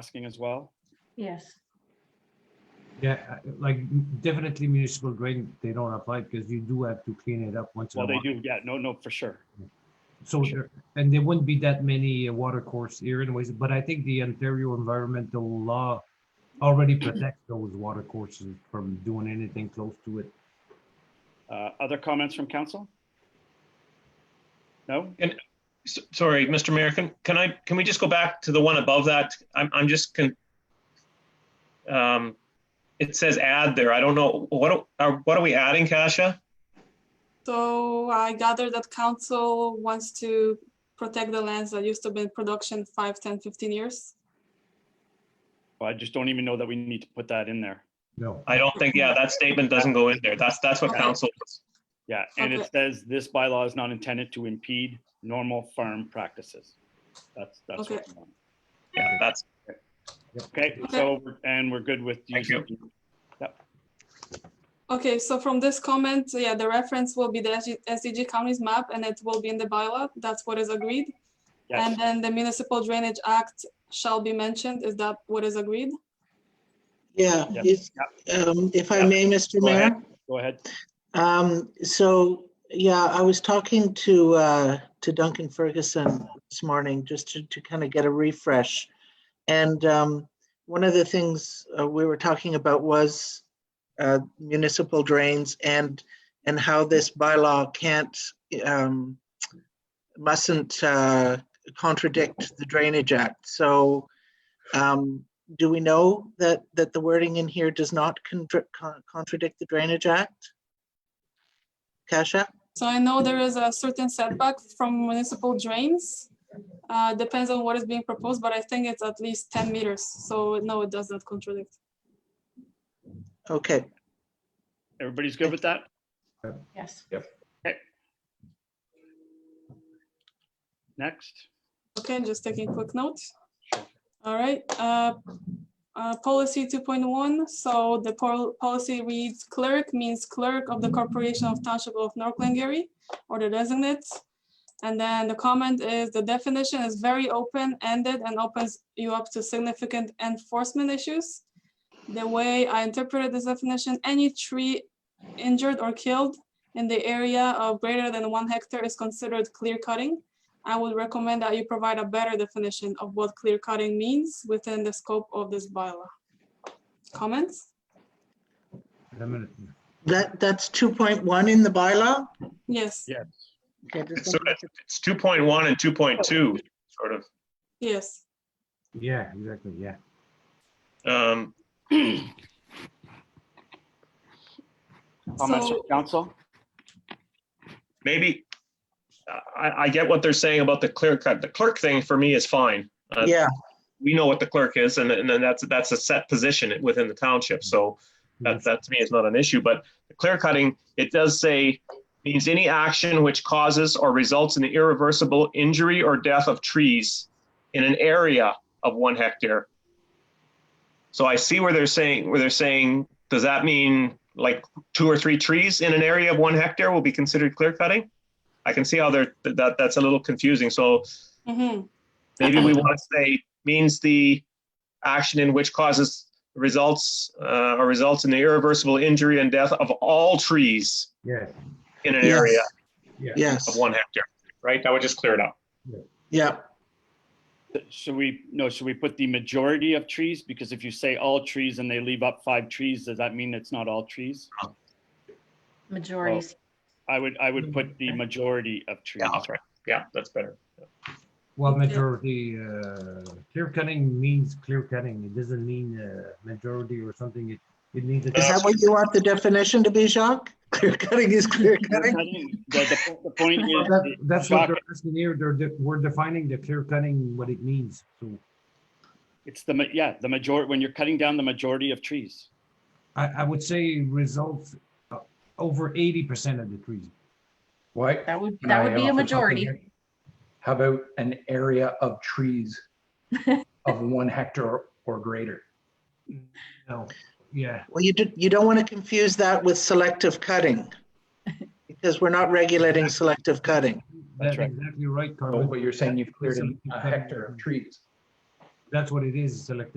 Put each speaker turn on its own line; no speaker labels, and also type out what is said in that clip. asking as well?
Yes,
Yeah, I- like definitely municipal grade, they don't apply because you do have to clean it up once in a
Well, they
while.
do, yeah, no, no, for sure.
So there, and there wouldn't be that many uh, water course here anyways, but I think the Ontario environmental law already protects those water courses from doing anything close to it.
Uh, Other comments from council? No?
S- Sorry, Mr. Mayor, can, can I, can we just go back to the one above that? I'm, I'm just con. um, It says add there. I don't know. What, are- are, what are we adding, Kasia?
So I gather that council wants to protect the lands that used to be in production five, 10, 15 years.
Well, I just don't even know that we need to put that in there.
No,
I don't think, yeah, that statement doesn't go in there. That's, that's what
Okay.
council.
Yeah, and it
Okay.
says this bylaw is not intended to impede normal farm practices. That's, that's what.
Okay.
we want.
Yeah, that's,
Okay,
Okay.
so, we're- and we're good with.
Thank you.
using-
Okay, so from this comment, yeah, the reference will be the SG SDG counties map and it will be in the bylaw. That's what is agreed. And
Yes,
then the municipal drainage act shall be mentioned. Is that what is agreed?
Yeah,
Yep,
if, um, if I
Yep.
may, Mr.
Go ahead.
Mayor.
go ahead.
Um, so, yeah, I was talking to, uh, to Duncan Ferguson this morning, just to, to kind of get a refresh. And, um, one of the things, uh, we were talking about was, uh, municipal drains and, and how this bylaw can't, um, mustn't, uh, contradict the Drainage Act. So, um, do we know that, that the wording in here does not contr- con- contradict the Drainage Act? Kasia?
So I know there is a certain setback from municipal drains. Uh, Depends on what is being proposed, but I think it's at least 10 meters. So no, it does not contradict.
Okay,
Everybody's good with that?
yes.
Next?
Okay, just taking quick notes. All right, uh, uh, policy two point one, so the pol- policy reads clerk means clerk of the Corporation of Township of North Glengarry or the designate. And then the comment is the definition is very open-ended and opens you up to significant enforcement issues. The way I interpreted this definition, any tree injured or killed in the area of greater than one hectare is considered clear cutting. I would recommend that you provide a better definition of what clear cutting means within the scope of this bylaw. Comments?
a minute.
that, that's 2.1 in the bylaw?
Yes,
Yes.
Okay, just
So
wanted to-
it's 2.1 and 2.2, sort of.
yes.
Yeah, exactly, yeah.
Um,
Comments from
So-
council?
Maybe, I, I get what they're saying about the clear cut. The clerk thing for me is fine. Uh,
Yeah,
we know what the clerk is, and, and then that's, that's a set position within the township, so that, that to me is not an issue, but the clear cutting, it does say, means any action which causes or results in the irreversible injury or death of trees in an area of one hectare. So I see where they're saying, where they're saying, does that mean like two or three trees in an area of one hectare will be considered clear cutting? I can see how they're, that, that's a little confusing, so
Mhm.
Maybe we want to say means the action in which causes results uh, or results in the irreversible injury and death of all trees
Yeah,
in an
Yes.
area of
yes,
one hectare, right? That would just clear it up.
yeah,
Should we, no, should we put the majority of trees? Because if you say all trees and they leave up five trees, does that mean it's not all trees?
Majorities.
I would, I
Mm-hmm.
would put the majority of trees.
Yeah, that's right. Yeah, that's better.
well, majority, uh, clear cutting means clear cutting. It doesn't mean, uh, majority or something. It, it means.
is
Uh,
that what you want the definition to be, Jacques? Clear cutting is clear cutting?
The, the- the point is.
Well, that- That's what
Jacques,
they're asking here. They're, de- we're defining the clear cutting, what it means. So
It's the, ma- yeah, the majority, when you're cutting down the majority of trees.
I, I would say results uh, over eighty percent of the trees.
What?
That would,
Can
that
I
would be
off
a
the top of my
majority.
head? How about an area of trees of one hectare or greater?
No, yeah,
Well, you do, you don't want to confuse that with selective cutting. Because we're not regulating selective cutting.
that's
right.
exactly right,
Oh,
Carmen.
but you're saying you've cleared a- a
Selective cutting.
hectare of trees.
That's what it is, selective